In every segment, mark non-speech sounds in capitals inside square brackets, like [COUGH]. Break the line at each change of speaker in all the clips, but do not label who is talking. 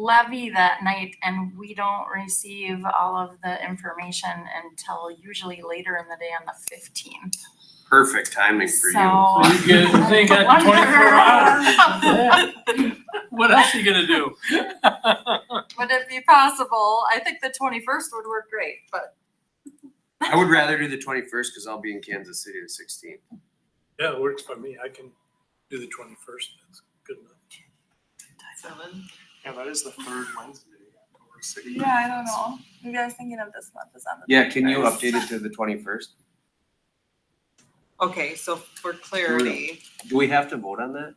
levy that night and we don't receive all of the information until usually later in the day on the fifteenth.
Perfect timing for you.
So.
So you get, they got twenty-four hours. Yeah. What else you gonna do?
[LAUGHS] Would it be possible? I think the twenty-first would work great, but
I would rather do the twenty-first because I'll be in Kansas City the sixteenth.
Yeah, it works for me. I can do the twenty-first. That's good enough.
Yeah, that is the third Wednesday. in Culver City.
Yeah, I don't know. Maybe I was thinking of this month is on the.
Yeah, can you update it to the twenty-first?
Okay, so for clarity,
Do we have to vote on that?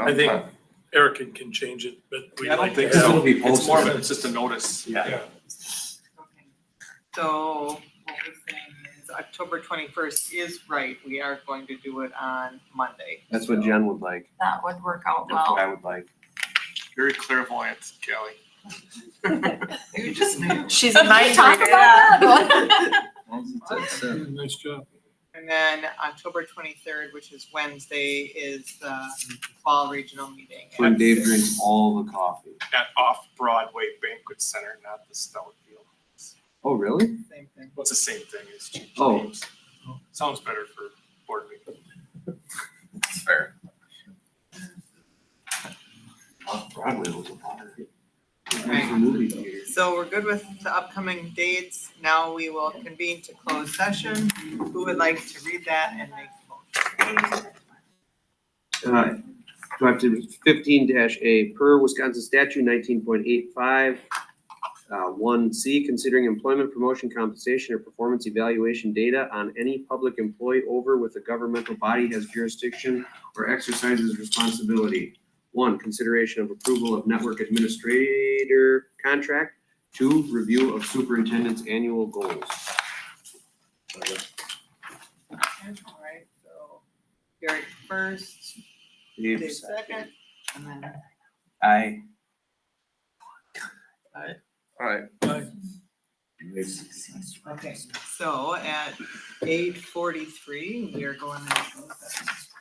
I think Eric can, can change it, but we
I don't
like to
think
It's gonna
so.
have.
be
It's more of
posted.
a, it's just a notice.
Yeah.
okay. so what we're saying is October twenty-first is right, we are going to do it on Monday.
That's what Jen would like.
that would work out
That's what
well.
I would like.
Very clairvoyant, Kelly.
[LAUGHS]
You just knew.
She's
Talk about
[LAUGHS]
that.
Nice job.
And then October twenty-third, which is Wednesday, is the fall regional meeting.
When Dave drinks all the coffee.
At Off Broadway Banquet Center, not the Stout Field.
Oh, really?
Same thing.
Well, it's the same thing. It's changed
Oh.
names. Sounds better for board meeting.
Fair. Broadway was a bother. It's a movie theater.
So we're good with the upcoming dates. Now we will convene to close session. Who would like to read that and make a motion?
Uh, Do I have to, fifteen dash A, per Wisconsin statute nineteen point eight five, uh, one C, considering employment promotion compensation or performance evaluation data on any public employee over with a governmental body has jurisdiction or exercises responsibility. One, consideration of approval of network administrator contract. Two, review of superintendent's annual goals.
All right, so Eric first, Dave
Dave,
second, and then
Aye. Alright.
Aye.
Okay, so at eight forty-three, we are going into closed session.